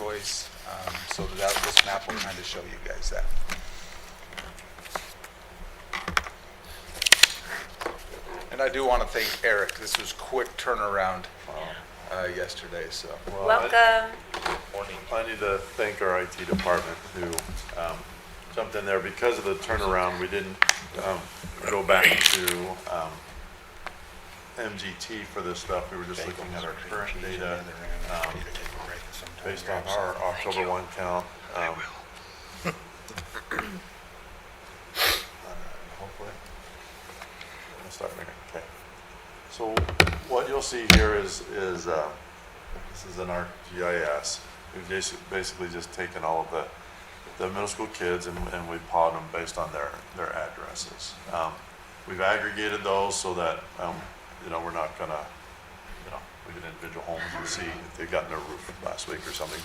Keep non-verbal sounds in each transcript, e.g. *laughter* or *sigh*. choice, um, so that this map will kind of show you guys that. And I do want to thank Eric, this was quick turnaround uh, yesterday, so. Well, I- Welcome. Morning. I need to thank our IT department who um, jumped in there. Because of the turnaround, we didn't um, go back to um, MGT for this stuff. We were just looking at our current data um, based on our October 1 count. um, I will. Hopefully. Let me start making, okay. So what you'll see here is, is, uh, this is in our GIS. We've basi- basically just taken all of the, the middle school kids and, and we plotted them based on their, their addresses. Um, We've aggregated those so that, um, you know, we're not gonna, you know, we get individual homes and see if they've gotten their roof last week or something,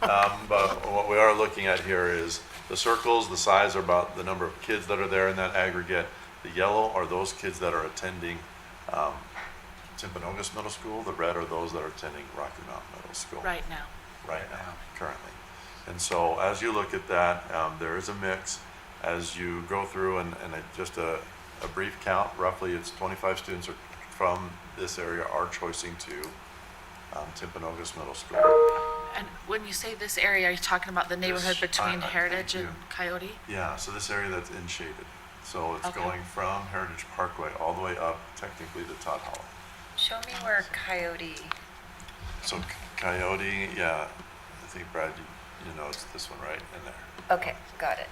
but, um, but what we are looking at here is the circles, the size are about the number of kids that are there in that aggregate. The yellow are those kids that are attending, um, Timpanogos Middle School. The red are those that are attending Rocky Mountain Middle School right now. right now, currently. And so as you look at that, um, there is a mix. As you go through and, and a- just a, a brief count, roughly it's twenty-five students are from this area are choicing to um, Timpanogos Middle School. And when you say this area, are you talking about the neighborhood This- between I- I- Heritage thank and Coyote? Yeah, so this area that's in shaded. So it's Okay. going from Heritage Parkway all the way up technically to Todd Hollow. Show me where Coyote, So Coyote, yeah, I think Brad, you, you know, it's this one right in there. okay, got it.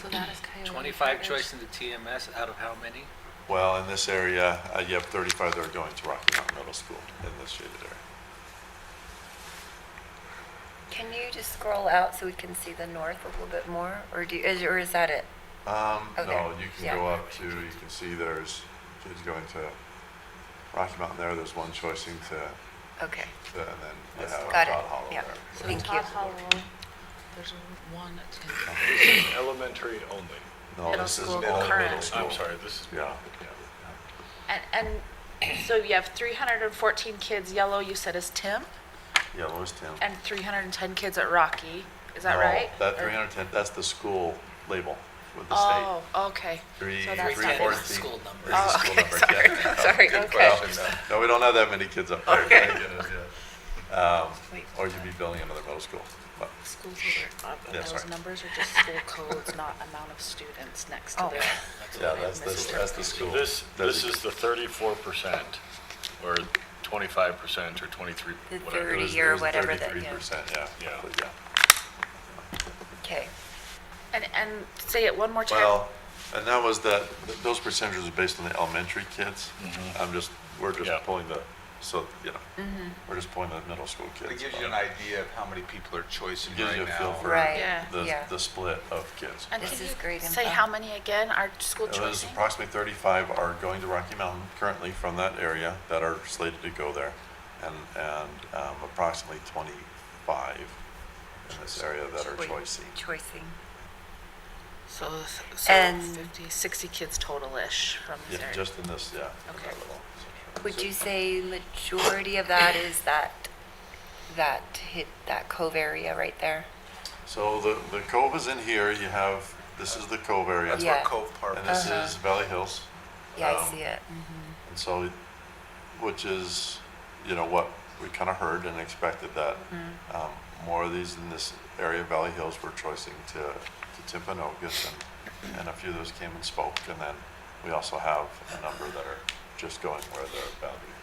So that is Coyote. 25 choice in the TMS out of how many? Well, in this area, uh, you have 35 that are going to Rocky Mountain Middle School in this shaded area. Can you just scroll out so we can see the north a little bit more, or do, is, or is that it? Um, Oh, No, there. you Yeah. can go up to, you can see there's kids going to Rocky Mountain there, there's one choicing to, Okay, to- and then you have got Todd Hollow it, yeah, there. thank you. There's one attendant. Elementary only. No, Middle this is school all middle current. school. I'm sorry, this is. Yeah. And, and *clears throat* so you have 314 kids, yellow you said is Tim, Yellow is 10. and 310 kids at Rocky. Is that No, right? That Or- 310, that's the school label with the state. Oh, okay. Three, So that's three, not- four, That is the three- school is number. the Oh, school okay, number, sorry. yeah. *laughs* *laughs* Sorry, Good okay. question, though. No, we don't have that many kids up there. *laughs* Okay. Thank goodness, yeah. Um, Or you'd be building another middle school. But Schools are, uh, Yeah, those sorry. numbers are just school codes, not amount of students next to Oh. their. *laughs* Yeah, that's, the that's the So school. This, this designation. is the thirty-four percent, or twenty-five percent, or twenty-three, The whatever. It it was- is. Thirty or it was whatever that- yeah. 33%, yeah. Yeah. roughly, Okay, And, and say it one more time. Well, and that was the, th- those percentages are based on the elementary kids. I'm just, we're just Mm-hmm. Yeah. pulling the, so, you know, we're just pulling the middle school kids. It gives you an idea of how many people are choicing Gives you right a feel now. for right, Yeah. The, yeah, the split of kids. And This can is you great Say info. how many again are school It was choice? approximately 35 are going to Rocky Mountain currently from that area that are slated to go there. And, and um, approximately 25 in this area that are Wait. choicing. choicing, So, so And- 50, 60 kids total-ish from Yeah, this area. just in this, yeah. in Okay. that little section. would you say majority of that is that, that hit, that cove area right there? So the, the cove is in here, you have, this is the cove area. That's where Yeah. Cove Park And is. this is Valley Hills. Yeah, Um, I see it, And so, which is, you know, what we kind of heard and expected that um, more of these in this area, Valley Hills, were choicing to, to Timpanogos and, and a few of those came and spoke. And then we also have a number that are just going where their boundary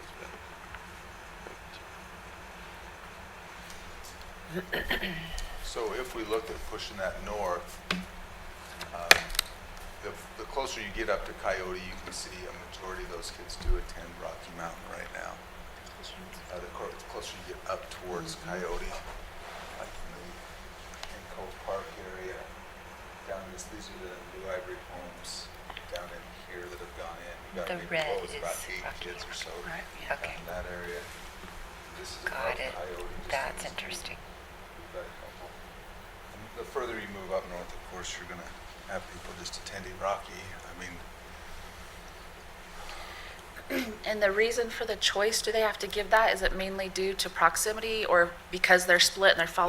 has been. So if we looked at pushing that north, um, the the closer you get up to Coyote, you can see a majority of those kids do attend Rocky Mountain right now. Uh, The cor- the closer you get up towards Mm-hmm. Coyote, like in the in Cove Park area, down this, these are the Blue Ivory homes down in here that have gone in. We've got The maybe, red what was it, about is eight Rocky kids or so Right, yeah. down okay, in that area. This is Got above it. Coyote. just that's in this- interesting. We've got a couple. And The further you move up north, of course, you're gonna have people just attending Rocky. I mean, *clears throat* And the reason for the choice, do they have to give that? Is it mainly due to proximity or because they're split and they're following